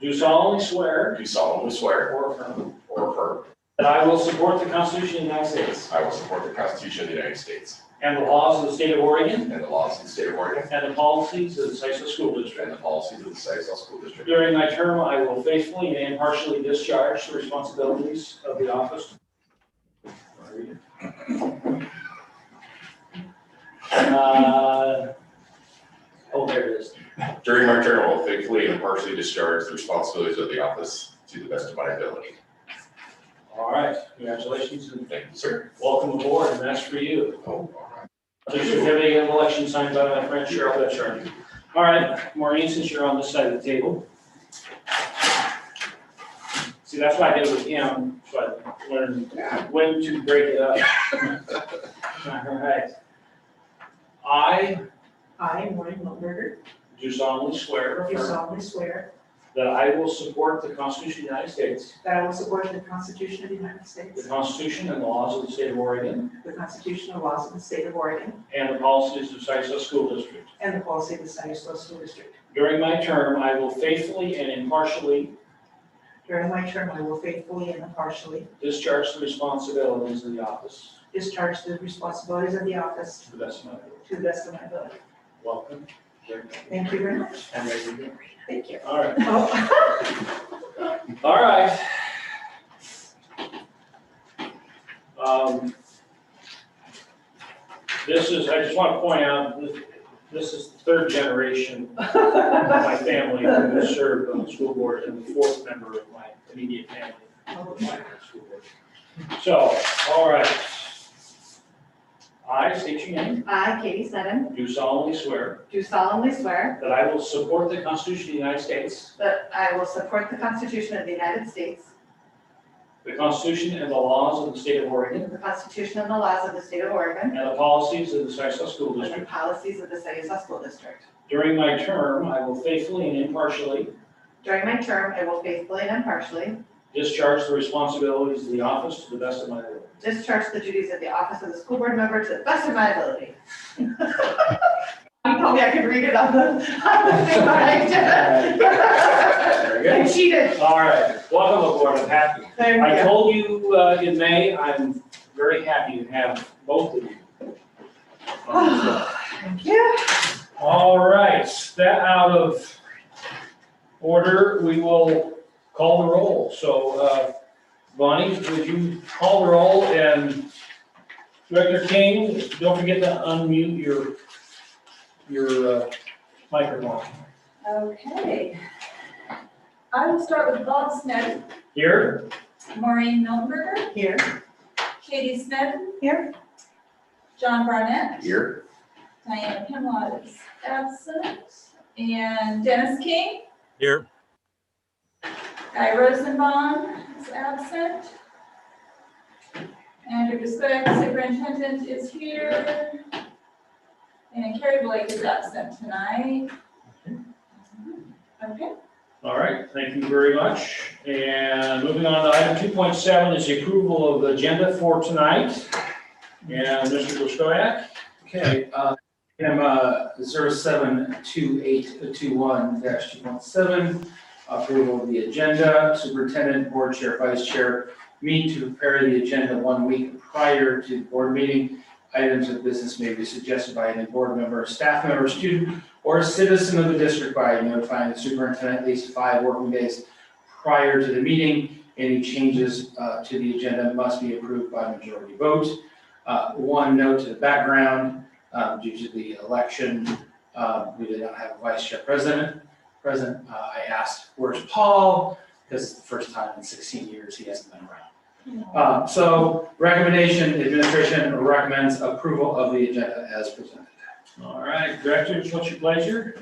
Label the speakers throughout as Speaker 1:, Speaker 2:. Speaker 1: do solemnly swear
Speaker 2: do solemnly swear
Speaker 1: or affirm
Speaker 2: or affirm
Speaker 1: that I will support the Constitution of the United States
Speaker 2: I will support the Constitution of the United States
Speaker 1: and the laws of the state of Oregon
Speaker 2: and the laws of the state of Oregon
Speaker 1: and the policies of the Sisseton School District.
Speaker 2: and the policies of the Sisseton School District.
Speaker 1: During my term, I will faithfully and impartially discharge the responsibilities of the office. Uh, Oh, there it is.
Speaker 2: During my term, I will faithfully and impartially discharge the responsibilities of the office to the best of my ability.
Speaker 1: All right, congratulations and
Speaker 2: Thank you, sir.
Speaker 1: welcome aboard, and that's for you.
Speaker 2: Oh, all right.
Speaker 1: There's a certificate of election signed by my friend Cheryl Betchard. All right, Maureen, since you're on this side of the table. See, that's what I did with him, so I learned when to break it up. All right. I
Speaker 3: I, Maureen Wilberger,
Speaker 1: do solemnly swear or
Speaker 3: do
Speaker 1: affirm
Speaker 3: solemnly swear
Speaker 1: that I will support the Constitution of the United States,
Speaker 3: that I will support the Constitution of the United
Speaker 1: the
Speaker 3: States,
Speaker 1: Constitution and laws of the state of Oregon,
Speaker 3: the constitutional laws of the state of Oregon,
Speaker 1: and the policies of Sisseton School District.
Speaker 3: and the policy of the San Ysidro School District.
Speaker 1: During my term, I will faithfully and impartially
Speaker 3: During my term, I will faithfully and impartially
Speaker 1: discharge the responsibilities of the office
Speaker 3: discharge the responsibilities of the office
Speaker 1: to the best of my ability.
Speaker 3: to the best of my ability.
Speaker 1: Welcome.
Speaker 3: Thank you very much.
Speaker 1: And there you go.
Speaker 3: Thank you.
Speaker 1: All right,
Speaker 3: Oh,
Speaker 1: all right. Um, This is, I just want to point out, this- this is the third generation of my family who has served on the school board and the fourth member of my immediate family. of my school board. So, all right. I state your name,
Speaker 4: I, Katie Sneddon,
Speaker 1: do solemnly swear
Speaker 4: do solemnly swear
Speaker 1: that I will support the Constitution of the United States
Speaker 4: that I will support the Constitution of the United States,
Speaker 1: The Constitution and the laws of the state of Oregon
Speaker 4: the Constitution and the laws of the State of Oregon,
Speaker 1: and the policies of the Sisseton School
Speaker 4: and the
Speaker 1: District.
Speaker 4: policies of the Saginaw School District.
Speaker 1: During my term, I will faithfully and impartially
Speaker 4: During my term, I will faithfully and impartially
Speaker 1: discharge the responsibilities of the office to the best of my ability.
Speaker 4: discharge the duties of the office of the school board member to the best of my ability. You told me I could read it on the, on the thing, but I didn't.
Speaker 1: Very
Speaker 4: I cheated.
Speaker 1: All right, welcome aboard, I'm happy. I
Speaker 4: Thank you.
Speaker 1: told you uh, in May, I'm very happy to have both of you. Um, on the board.
Speaker 4: Thank you.
Speaker 1: All right, that out of order, we will call the roll. So uh, Bonnie, would you call the roll and Director King, don't forget to unmute your, your uh, microphone.
Speaker 5: Okay. I will start with Bob Smith,
Speaker 1: Here?
Speaker 5: Maureen Miltenberger,
Speaker 4: Here.
Speaker 5: Katie Smith.
Speaker 4: Here.
Speaker 5: John Barnett.
Speaker 2: Here,
Speaker 5: Diana Pimlott is absent. And Dennis King.
Speaker 6: Here.
Speaker 5: Guy Rosenbaum is absent. Andrew Bisbeck, superintendent, is here. And Carrie Blake is absent tonight. Okay.
Speaker 1: All right, thank you very much. And moving on to item two point seven is the approval of the agenda for tonight. And Mr. Buskoyak?
Speaker 7: Okay, uh, item, uh, zero seven two eight two one dash two one seven, approval of the agenda, superintendent, board chair, vice chair, meet to prepare the agenda one week prior to the board meeting. Items of business may be suggested by any board member, staff member, student, or citizen of the district by notifying the superintendent at least five working days prior to the meeting. Any changes, uh, to the agenda must be approved by majority vote. Uh, One note to the background, um, due to the election, uh, we did not have a vice chair president. President, uh, I asked, where's Paul? Because it's the first time in 16 years he hasn't been around. Uh, So recommendation, administration recommends approval of the agenda as presented.
Speaker 1: All right, directors, what's your pleasure?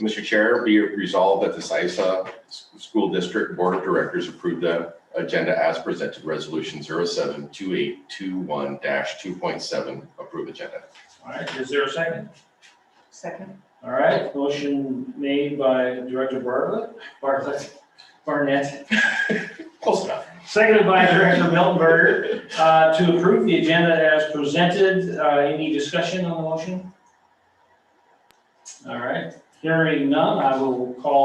Speaker 2: Mr. Chair, be it resolved that the Sisa School District Board of Directors approve the agenda as presented, Resolution 072821-2.7, approve agenda.
Speaker 1: All right, is there a second?
Speaker 3: Second.
Speaker 1: All right, motion made by Director Bartlett, Bartlett, Barnett,
Speaker 2: Close enough.
Speaker 1: seconded by Director Miltenberger, uh, to approve the agenda as presented. Uh, Any discussion on the motion? All right, hearing none, I will call